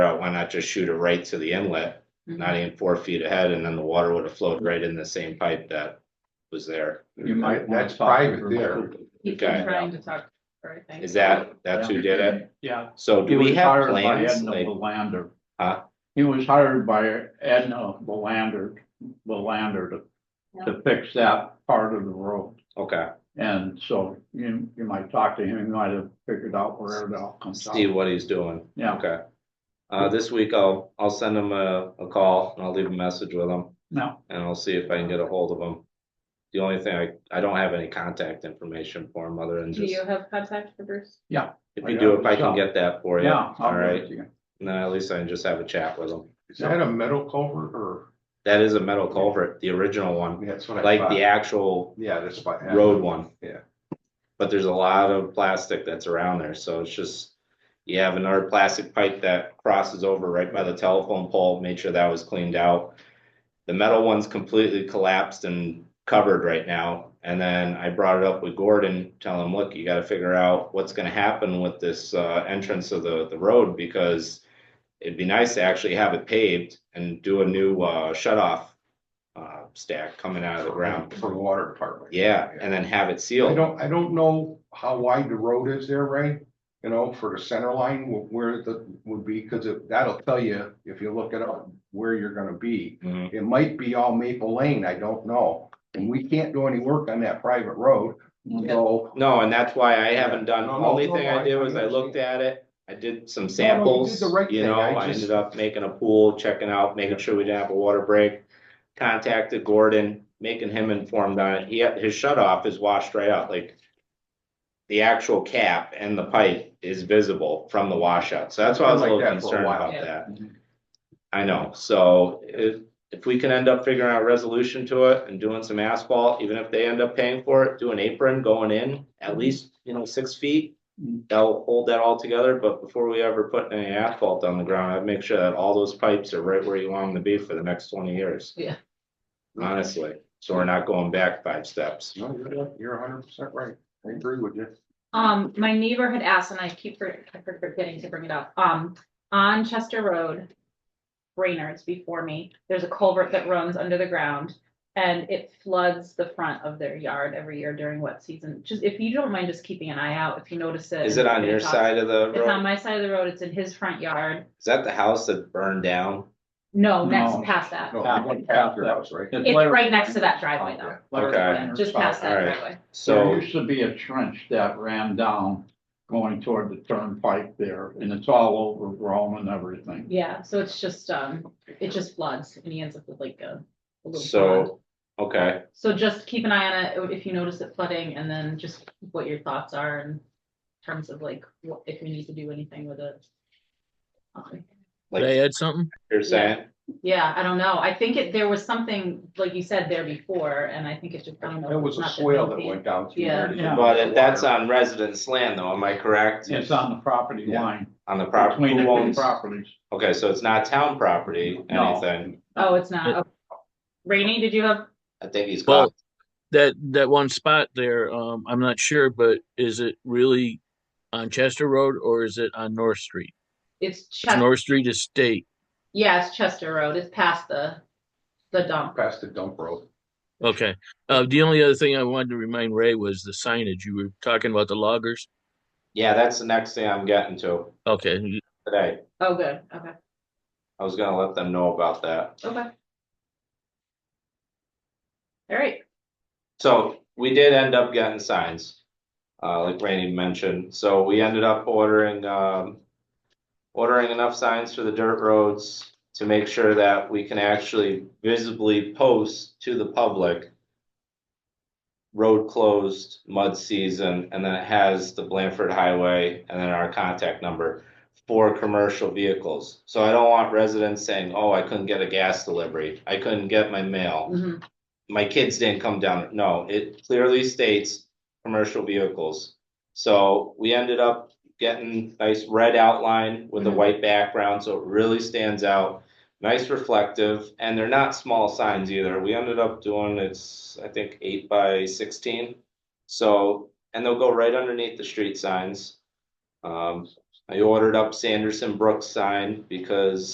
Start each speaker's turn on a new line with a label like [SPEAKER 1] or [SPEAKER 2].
[SPEAKER 1] not just shoot it right to the inlet,
[SPEAKER 2] Mm-hmm.
[SPEAKER 1] not even four feet ahead, and then the water would have flowed right in the same pipe that was there.
[SPEAKER 3] You might wanna
[SPEAKER 4] That's
[SPEAKER 3] talk to
[SPEAKER 4] private
[SPEAKER 3] her.
[SPEAKER 4] there.
[SPEAKER 2] He's
[SPEAKER 1] Okay.
[SPEAKER 2] been trying to talk, to her, I think.
[SPEAKER 1] Is that, that's who did it?
[SPEAKER 3] Yeah.
[SPEAKER 1] So
[SPEAKER 3] He
[SPEAKER 1] do we
[SPEAKER 3] was
[SPEAKER 1] have
[SPEAKER 3] hired by
[SPEAKER 1] plans?
[SPEAKER 3] Edna
[SPEAKER 1] Like,
[SPEAKER 3] Belander.
[SPEAKER 1] Huh?
[SPEAKER 3] He was hired by Edna Belander, Belander to, to fix that part of the road.
[SPEAKER 1] okay,
[SPEAKER 3] And so you, you might talk to him, you might have figured out where it all comes out.
[SPEAKER 1] see what he's doing.
[SPEAKER 3] Yeah.
[SPEAKER 1] Okay. Uh, this week I'll, I'll send him a, a call and I'll leave a message with him
[SPEAKER 3] No,
[SPEAKER 1] and I'll see if I can get a hold of him. The only thing, I, I don't have any contact information for him other than
[SPEAKER 2] Do
[SPEAKER 1] just,
[SPEAKER 2] you have contact for Bruce?
[SPEAKER 1] if you do, if I can get that for you.
[SPEAKER 3] yeah. I'll
[SPEAKER 1] All right,
[SPEAKER 3] give it to you.
[SPEAKER 1] And then at least I can just have a chat with him.
[SPEAKER 4] Is that a metal culvert or?
[SPEAKER 1] That is a metal culvert, the original one,
[SPEAKER 4] That's what I
[SPEAKER 1] like
[SPEAKER 4] thought.
[SPEAKER 1] the actual
[SPEAKER 4] Yeah, that's what. happened.
[SPEAKER 1] road one.
[SPEAKER 4] Yeah.
[SPEAKER 1] But there's a lot of plastic that's around there, so it's just, you have another plastic pipe that crosses over right by the telephone pole, made sure that was cleaned out. The metal one's completely collapsed and covered right now, and then I brought it up with Gordon, tell him, look, you gotta figure out what's gonna happen with this, uh, entrance of the, the road, because it'd be nice to actually have it paved and do a new, uh, shut off, uh, stack coming out of the ground.
[SPEAKER 4] For the water department.
[SPEAKER 1] Yeah, and then have it
[SPEAKER 4] I
[SPEAKER 1] sealed.
[SPEAKER 4] don't, I don't know how wide the road is there, Ray, you know, for the center line, wh- where the, would be, cause it- that'll tell you, if you look it up, where you're gonna be.
[SPEAKER 1] Mhm.
[SPEAKER 4] It might be all Maple Lane, I don't know, and we can't do any work on that private road, so.
[SPEAKER 1] No, and that's why I haven't done,
[SPEAKER 4] No,
[SPEAKER 1] the
[SPEAKER 4] no,
[SPEAKER 1] only
[SPEAKER 4] no,
[SPEAKER 1] thing
[SPEAKER 4] no,
[SPEAKER 1] I
[SPEAKER 4] I-
[SPEAKER 1] did
[SPEAKER 4] I
[SPEAKER 1] was I looked at it, I did some samples,
[SPEAKER 4] the right
[SPEAKER 1] you
[SPEAKER 4] thing,
[SPEAKER 1] know,
[SPEAKER 4] I
[SPEAKER 1] I
[SPEAKER 4] just-
[SPEAKER 1] ended up making a pool, checking out, making sure we didn't have a water break. Contacted Gordon, making him informed on it, he, had- his shut off is washed right out, like. The actual cap and the pipe is visible from the washout, so that's why I was a
[SPEAKER 4] Been like
[SPEAKER 1] little
[SPEAKER 4] that for a
[SPEAKER 1] concerned
[SPEAKER 4] while.
[SPEAKER 1] about that. I know, so if, if we can end up figuring out a resolution to it and doing some asphalt, even if they end up paying for it, do an apron going in, at
[SPEAKER 2] Mm-hmm.
[SPEAKER 1] least, you know, six feet.
[SPEAKER 3] Mhm.
[SPEAKER 1] That'll hold that all together, but before we ever put any asphalt on the ground, I'd make sure that all those pipes are right where you want them to be for the next twenty years.
[SPEAKER 2] Yeah.
[SPEAKER 1] Honestly, so we're not going back five steps.
[SPEAKER 4] No, you're, you're hundred percent right, I agree with you.
[SPEAKER 2] Um, my neighbor had asked, and I keep for- I keep forgetting to bring it up, um, on Chester Road. Raynard's before me, there's a culvert that runs under the ground. And it floods the front of their yard every year during wet season, just if you don't mind just keeping an eye out, if you notice it.
[SPEAKER 1] Is it on your side of the
[SPEAKER 2] It's on
[SPEAKER 1] road?
[SPEAKER 2] my side of the road, it's in his front yard,
[SPEAKER 1] Is that the house that burned down?
[SPEAKER 2] no,
[SPEAKER 3] No.
[SPEAKER 2] next past that,
[SPEAKER 4] No, you went past your house, right?
[SPEAKER 2] it's right next to that driveway though,
[SPEAKER 1] Okay.
[SPEAKER 2] Yeah, just past that
[SPEAKER 1] All right.
[SPEAKER 2] driveway.
[SPEAKER 1] So.
[SPEAKER 3] There used to be a trench that ran down going toward the turnpike there and it's all overgrown and everything.
[SPEAKER 2] Yeah, so it's just, um, it just floods and he ends up with like a. a little pond.
[SPEAKER 1] So, okay,
[SPEAKER 2] So just keep an eye on it if you notice it flooding and then just what your thoughts are in terms of like, what, if we need to do anything with it. Um,
[SPEAKER 1] like
[SPEAKER 5] They had something?
[SPEAKER 1] you're saying,
[SPEAKER 2] Yeah, I don't know. I think it, there was something, like you said, there before and I think it just, I don't know.
[SPEAKER 4] It
[SPEAKER 2] if
[SPEAKER 4] was
[SPEAKER 2] it's
[SPEAKER 4] a
[SPEAKER 2] not
[SPEAKER 4] swale that
[SPEAKER 2] healthy.
[SPEAKER 4] went down through
[SPEAKER 2] Yeah.
[SPEAKER 4] there. to get
[SPEAKER 3] Yeah.
[SPEAKER 1] but
[SPEAKER 4] the
[SPEAKER 1] if that's
[SPEAKER 4] water.
[SPEAKER 1] on residence land though, am I correct?
[SPEAKER 3] It's on the property
[SPEAKER 4] Yeah.
[SPEAKER 3] line,
[SPEAKER 1] On the property,
[SPEAKER 3] between the
[SPEAKER 1] who
[SPEAKER 3] two
[SPEAKER 1] owns,
[SPEAKER 3] properties.
[SPEAKER 1] okay, so it's not town property,
[SPEAKER 3] No.
[SPEAKER 1] anything,
[SPEAKER 2] Oh, it's not. Okay. Rainey, did you have,
[SPEAKER 1] I think he's
[SPEAKER 5] Well-
[SPEAKER 1] caught,
[SPEAKER 5] That that one spot there, um, I'm not sure, but is it really on Chester Road or is it on North Street?
[SPEAKER 2] it's
[SPEAKER 5] Is
[SPEAKER 2] Chester,
[SPEAKER 5] North Street is state.
[SPEAKER 2] yeah, it's Chester Road. It's past the, the dump.
[SPEAKER 4] Past the dump road.
[SPEAKER 5] Okay. Uh, the only other thing I wanted to remind Ray was the signage. You were talking about the loggers.
[SPEAKER 1] yeah, that's the next thing I'm getting to
[SPEAKER 5] Okay.
[SPEAKER 1] today.
[SPEAKER 2] Oh, good. Okay,
[SPEAKER 1] I was gonna let them know about that,
[SPEAKER 2] okay. All right.
[SPEAKER 1] so we did end up getting signs. Uh, like Randy mentioned, so we ended up ordering, um. Ordering enough signs for the dirt roads to make sure that we can actually visibly post to the public. road closed, mud season, and then it has the Blanford Highway and then our contact number for commercial vehicles. So I don't want residents saying, oh, I couldn't get a gas delivery, I couldn't get my mail,
[SPEAKER 2] Mhm.
[SPEAKER 1] my kids didn't come down. No, it clearly states commercial vehicles. So we ended up getting nice red outline with a
[SPEAKER 2] Mhm.
[SPEAKER 1] white background, so it really stands out. Nice reflective, and they're not small signs either. We ended up doing, it's, I think, eight by sixteen. So, and they'll go right underneath the street signs. Um, I ordered up Sanderson Brooks sign because